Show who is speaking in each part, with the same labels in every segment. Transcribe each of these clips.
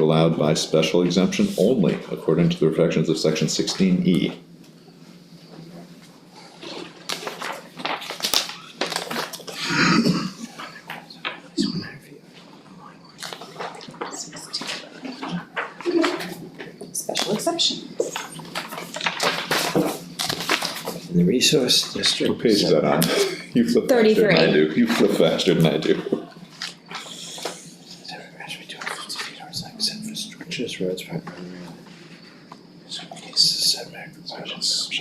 Speaker 1: allowed by special exemption only according to the protections of section sixteen E.
Speaker 2: Special exceptions.
Speaker 3: in the resource district.
Speaker 1: What page is that on? You flip faster than I
Speaker 4: 33.
Speaker 1: do, you flip faster than I do.
Speaker 3: Structures, roads, primary. Setback requirements.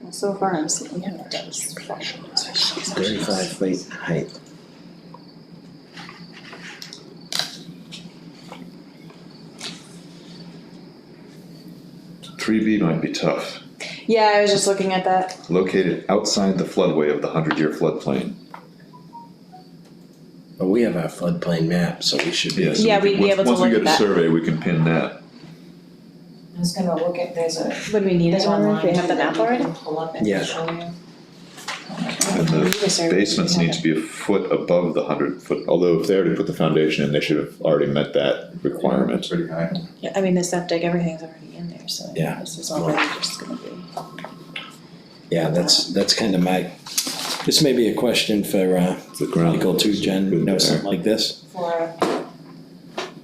Speaker 2: Well, So far, I'm seeing how it does. Special exceptions.
Speaker 3: Thirty-five feet height.
Speaker 1: Three B might be tough,
Speaker 2: Yeah, I was just looking at that.
Speaker 1: located outside the floodway of the hundred-year floodplain.
Speaker 3: But we have our floodplain map, so we should be.
Speaker 1: Yeah, so
Speaker 2: Yeah,
Speaker 1: we
Speaker 2: we'd
Speaker 1: can-
Speaker 2: be
Speaker 1: once-
Speaker 2: able to look
Speaker 1: Once we get
Speaker 2: at
Speaker 1: a
Speaker 2: that.
Speaker 1: survey, we can pin that.
Speaker 5: I was gonna look at, there's a,
Speaker 2: Would we need
Speaker 5: there's
Speaker 2: it online?
Speaker 5: online.
Speaker 2: Do we have the
Speaker 5: too that
Speaker 2: map
Speaker 5: you
Speaker 2: already?
Speaker 5: can Pull up and
Speaker 3: Yeah.
Speaker 5: show you.
Speaker 1: And the basements need to be a foot above the hundred foot, although if they already put the foundation in, they should have already met that requirement.
Speaker 6: Pretty high.
Speaker 2: Yeah, I mean, the septic, everything's already in there, so
Speaker 3: Yeah.
Speaker 2: this is already just gonna be.
Speaker 3: Yeah, that's, that's kind of my, this may be a question for, uh,
Speaker 1: The ground.
Speaker 3: Michael too, Jen, you know,
Speaker 1: Good
Speaker 3: something like this,
Speaker 5: For,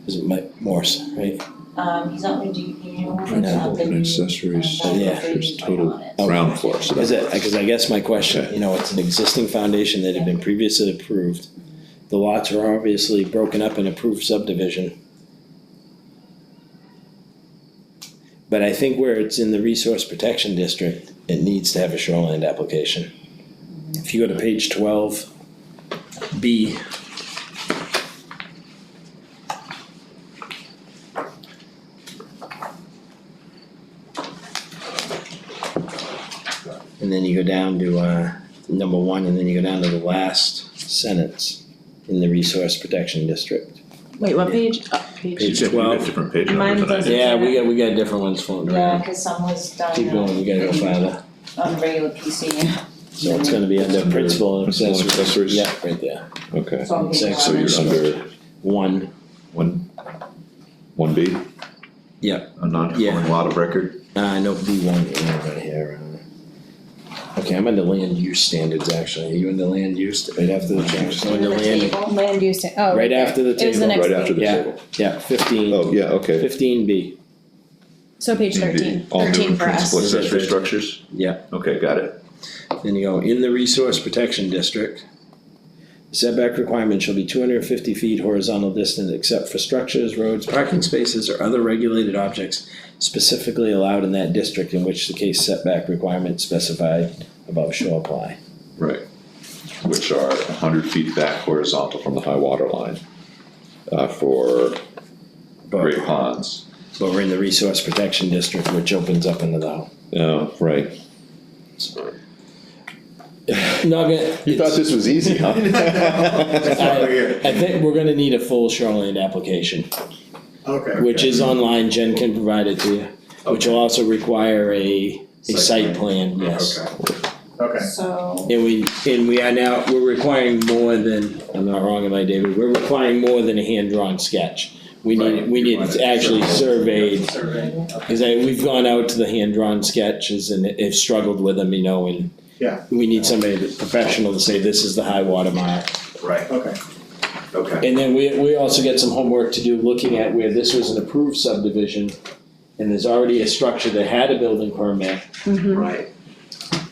Speaker 3: is it Mike Morse, right?
Speaker 5: um, he's not gonna do, you know,
Speaker 1: there.
Speaker 3: No.
Speaker 5: not the
Speaker 1: And
Speaker 5: new.
Speaker 1: Accessories,
Speaker 5: um,
Speaker 3: Yeah.
Speaker 1: there's
Speaker 5: building
Speaker 1: total
Speaker 5: on it.
Speaker 1: ground floor, so
Speaker 3: Is
Speaker 1: that's
Speaker 3: it, because I guess my question, you know, it's an existing foundation that had been previously approved. The lots were obviously broken up in approved subdivision. But I think where it's in the resource protection district, it needs to have a shoreline application. If you go to page twelve, B. And then you go down to, uh, number one, and then you go down to the last sentence in the resource protection district.
Speaker 2: Wait, what page?
Speaker 1: Uh,
Speaker 2: Oh, page.
Speaker 3: Page
Speaker 1: You said you had
Speaker 3: twelve.
Speaker 1: Different page
Speaker 2: Mine
Speaker 1: numbers than I
Speaker 2: doesn't-
Speaker 1: did.
Speaker 3: Yeah, we got, we got different ones floating
Speaker 5: Yeah,
Speaker 3: around.
Speaker 5: cause some was done
Speaker 3: Keep
Speaker 5: on,
Speaker 3: going, we gotta go farther.
Speaker 5: on regular PC,
Speaker 3: So it's gonna be under principal and
Speaker 1: Principal and
Speaker 3: accessory.
Speaker 1: accessories.
Speaker 3: Yeah, right there.
Speaker 1: Okay,
Speaker 5: so I'm
Speaker 3: Exactly.
Speaker 1: so you're under
Speaker 3: One,
Speaker 1: one, one B?
Speaker 3: Yeah.
Speaker 1: A non-conforming lot of record?
Speaker 3: uh, no, B one, yeah, right here. uh, Okay, I'm under land use standards, actually. Are you under land use? Right after the change. I'm under land,
Speaker 2: Land use, ta- oh.
Speaker 3: right after the
Speaker 2: It was the
Speaker 3: table.
Speaker 2: next
Speaker 1: Right after
Speaker 2: page.
Speaker 1: the
Speaker 3: Yeah.
Speaker 1: table?
Speaker 3: Yeah, fifteen,
Speaker 1: Oh, yeah, okay.
Speaker 3: fifteen B.
Speaker 2: So page
Speaker 1: 15B.
Speaker 2: thirteen,
Speaker 1: All new
Speaker 2: thirteen for us.
Speaker 1: principal
Speaker 3: Is it
Speaker 1: accessory
Speaker 3: thirteen?
Speaker 1: structures?
Speaker 3: Yeah.
Speaker 1: Okay, got it.
Speaker 3: Then you go in the resource protection district. Setback requirement shall be two hundred and fifty feet horizontal distance except for structures, roads, parking spaces, or other regulated objects specifically allowed in that district in which the case setback requirement specified above shall apply.
Speaker 1: Right. Which are hundred feet back horizontal from the high water line, uh, for
Speaker 3: But,
Speaker 1: great ponds.
Speaker 3: but we're in the resource protection district, which opens up into the.
Speaker 1: Oh, right.
Speaker 3: Not gonna.
Speaker 1: You thought this was easy, huh?
Speaker 3: I I think we're gonna need a full shoreline application.
Speaker 6: Okay.
Speaker 3: Which is online, Jen can provide it to you, which will also require a, a site
Speaker 6: Site
Speaker 3: plan, yes.
Speaker 6: Okay.
Speaker 5: So,
Speaker 3: And we, and we are now, we're requiring more than, I'm not wrong, am I, David, we're requiring more than a hand-drawn sketch. We need,
Speaker 6: Right.
Speaker 3: we need it actually surveyed,
Speaker 6: Surveyed, okay.
Speaker 3: cause I, we've gone out to the hand-drawn sketches and have struggled with them, you know, and
Speaker 6: Yeah.
Speaker 3: we need somebody that's professional to say, this is the high water mark.
Speaker 6: Right. Okay. Okay.
Speaker 3: And then we, we also get some homework to do looking at where this was an approved subdivision, and there's already a structure that had a building permit.
Speaker 2: Mhm.
Speaker 6: Right.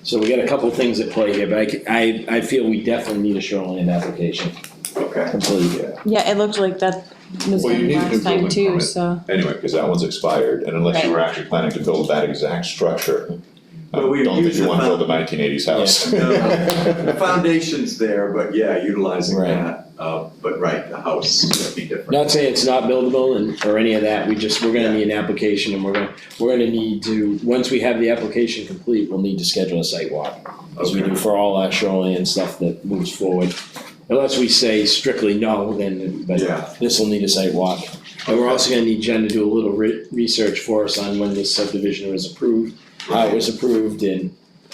Speaker 3: So we got a couple things at play here, but I c- I, I feel we definitely need a shoreline application,
Speaker 6: Okay.
Speaker 3: completely.
Speaker 2: Yeah, it looked like that was
Speaker 1: Well, you
Speaker 2: in
Speaker 1: need a new
Speaker 2: last time
Speaker 1: building
Speaker 2: too,
Speaker 1: permit.
Speaker 2: so.
Speaker 1: Anyway, because that one's expired, and unless you
Speaker 5: Right.
Speaker 1: were actually planning to build that exact structure, I
Speaker 6: But we
Speaker 1: don't think
Speaker 6: use
Speaker 1: you
Speaker 6: the
Speaker 1: wanna build a
Speaker 6: found-
Speaker 1: nineteen eighties house.
Speaker 6: The
Speaker 1: Right,
Speaker 6: foundation's there, but yeah, utilizing
Speaker 3: Right.
Speaker 6: that, uh, but right, the house would be different.
Speaker 3: Not saying it's not buildable and, or any of that, we just, we're gonna need an application and we're gonna, we're gonna need to, once we have the application complete, we'll need to schedule a site walk. as we
Speaker 6: Okay.
Speaker 3: do for all our shoreline stuff that moves forward. Unless we say strictly no, then, but
Speaker 6: Yeah.
Speaker 3: this will need a site walk. And we're also gonna need Jen to do a little re- research for us on when this subdivision was approved, how it was approved, and